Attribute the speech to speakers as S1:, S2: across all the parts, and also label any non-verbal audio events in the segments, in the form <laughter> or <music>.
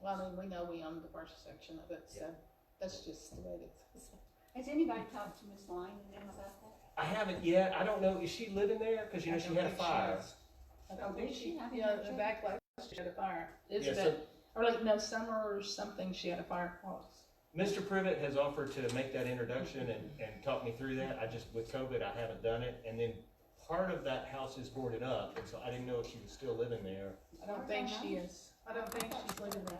S1: Well, I mean, we know we own the first section of it, so that's just the way it is.
S2: Has anybody talked to Ms. Lyon and them about that?
S3: I haven't yet. I don't know. Is she living there? Because you know
S1: I
S3: she
S1: don't
S3: had a
S1: think she
S3: fire.
S1: is. I don't
S2: Oh,
S1: think
S2: did she? I didn't
S1: Yeah,
S2: know
S1: the
S2: she-
S1: back last, she had a fire. It's
S3: Yeah,
S1: been,
S3: so-
S1: or like, no, summer or something, she had a fire. once.
S3: Mr. Privet has offered to make that introduction and, and talk me through that. I just with COVID I haven't done it. And then part of that house is boarded up, and so I didn't know if she was still living there.
S1: I don't think
S2: Okay,
S1: she is. I don't think she's living there.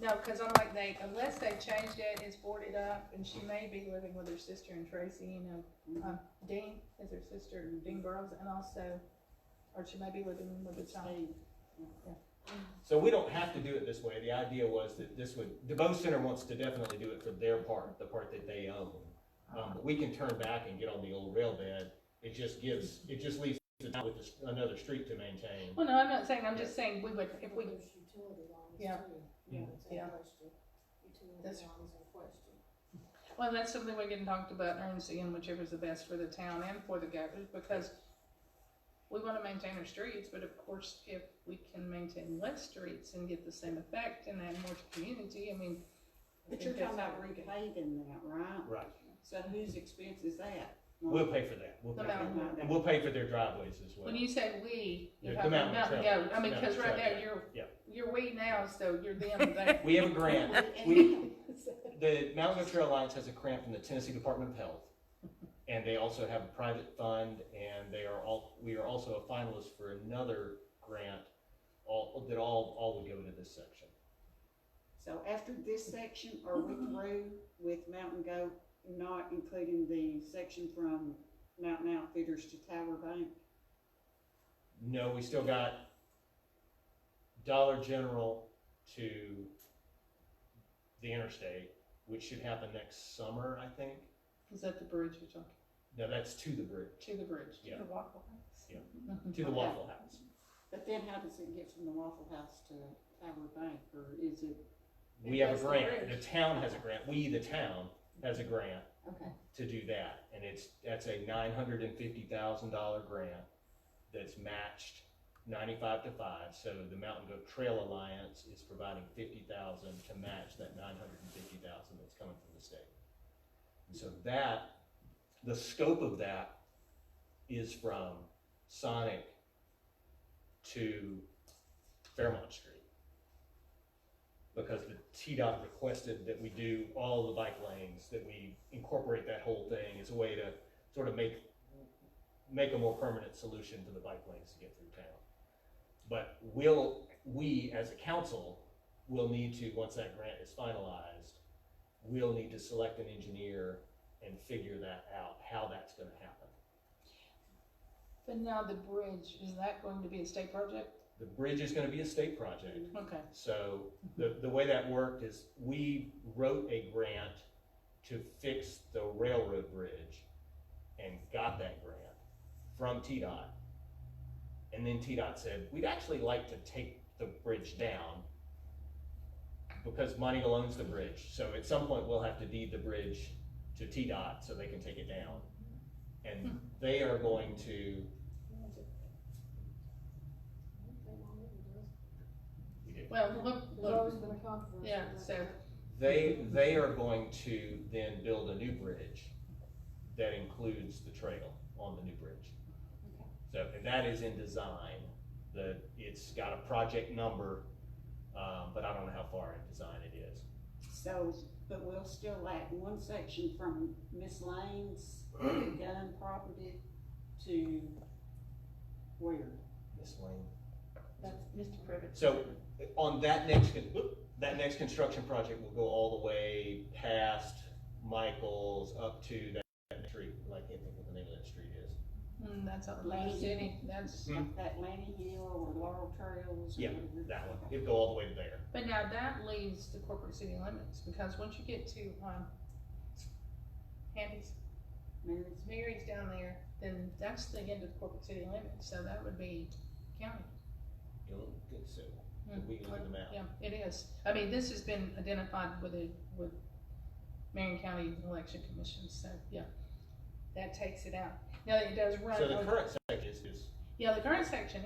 S1: No, cause I'm like, they, unless they changed it, it's boarded up, and she may be living with her sister and Tracy, you know, uh, Dean is her sister, and Dean Burrows, and also, or she may be living with a child.
S3: So we don't have to do it this way. The idea was that this would the Bow Center wants to definitely do it for their part, the part that they own. Um, but we can turn back and get on the old rail bed. It just gives it just leaves the town with this- another street to maintain.
S1: Well, no, I'm not saying, I'm just saying, we would, if we,
S4: There's utility lines too.
S1: Yeah.
S3: Yeah.
S4: It's a
S1: Yeah.
S4: question. Utility
S1: That's-
S4: lines
S1: <laughs>
S4: are a question.
S1: Well, that's something we can talk about and seeing whichever's the best for the town and for the governors, because we wanna maintain our streets, but of course, if we can maintain less streets and get the same effect and add more to community, I mean. I
S5: But you're
S1: think
S5: talking
S1: that's-
S5: about repaving that, right?
S3: Right.
S5: So whose expense is that?
S3: We'll pay for that. We'll
S1: The
S3: pay for
S1: mountain.
S3: that. We'll pay for their driveways as well.
S1: When you say we, you're
S3: Yeah, the
S1: talking
S3: mountain
S1: mountain
S3: trail.
S1: goat, I mean, cause
S3: Mountain
S1: right
S3: trail,
S1: now, you're,
S3: yeah.
S1: you're we now, so you're them
S3: <laughs>
S1: there.
S3: We have a grant. We, the Mountain Goat Trail Alliance has a grant from the Tennessee Department of Health. And they also have a private fund and they are all, we are also a finalist for another grant, all, that all, all would go into this section.
S5: So after this section, are we through with Mountain Goat, not including the section from Mountain Outfitters to Tower Bank?
S3: No, we still got Dollar General to the interstate, which should happen next summer, I think.
S1: Is that the bridge you're talking,
S3: No, that's to the bridge,
S1: to the bridge?
S3: Yeah.
S1: The Waffle House?
S3: Yeah.
S1: Mhm.
S3: to the Waffle House.
S5: But then how does it get from the Waffle House to Tower Bank, or is it,
S3: We
S1: It
S3: have a
S1: does the
S3: grant, the
S1: bridge.
S3: town has a grant, we, the town, has a grant
S5: okay,
S3: to do that, and it's, that's a nine hundred and fifty thousand dollar grant that's matched ninety-five to five, so the Mountain Goat Trail Alliance is providing fifty thousand to match that nine hundred and fifty thousand that's coming from the state. And so that, the scope of that is from Sonic to Fairmont Street. Because the TDOT requested that we do all the bike lanes, that we incorporate that whole thing as a way to sort of make, make a more permanent solution to the bike lanes to get through town. But will, we as a council will need to, once that grant is finalized, we'll need to select an engineer and figure that out, how that's gonna happen.
S1: But now the bridge, is that going to be a state project?
S3: The bridge is gonna be a state project.
S1: Okay.
S3: So the, the way that worked is we wrote a grant to fix the railroad bridge and got that grant from TDOT. And then TDOT said, we'd actually like to take the bridge down because Monty owns the bridge. So at some point, we'll have to deed the bridge to TDOT so they can take it down. And they are going to,
S1: Well, look,
S4: There's
S1: look,
S4: always been a controversy.
S1: yeah,
S4: about
S1: so-
S4: that.
S3: They, they are going to then build a new bridge that includes the trail on the new bridge. So, and that is in design, the, it's got a project number, um, but I don't know how far in design it is.
S5: so, but we'll still lack one section from
S3: <clears throat>
S5: Miss Lane's gun property to where?
S3: Miss Lane.
S1: that's Mr. Privet.
S3: So on that next, con- whoop, that next construction project will go all the way past Michael's up to that, that street, like, I can't think of the name of that street is.
S1: Mm, that's Oklahoma City, that's,
S3: Hmm.
S5: That Lanny Hill or Laurel Trails or
S3: Yeah,
S5: whatever?
S3: That one, it'll go all the way to there.
S1: but now that leaves the corporate city limits, because once you get to, um, Handy's,
S5: Mary's-
S1: Mary's down there, then that's the end of the corporate city limits, so that would be county.
S3: You'll get so.
S1: Mm.
S3: We can leave them out.
S1: Yeah, it is, I mean, this has been identified with the, with Marion County Election Commission, so, yeah, that takes it out. Now, it does run,
S3: So the
S1: over-
S3: current section is, is
S1: yeah, the current section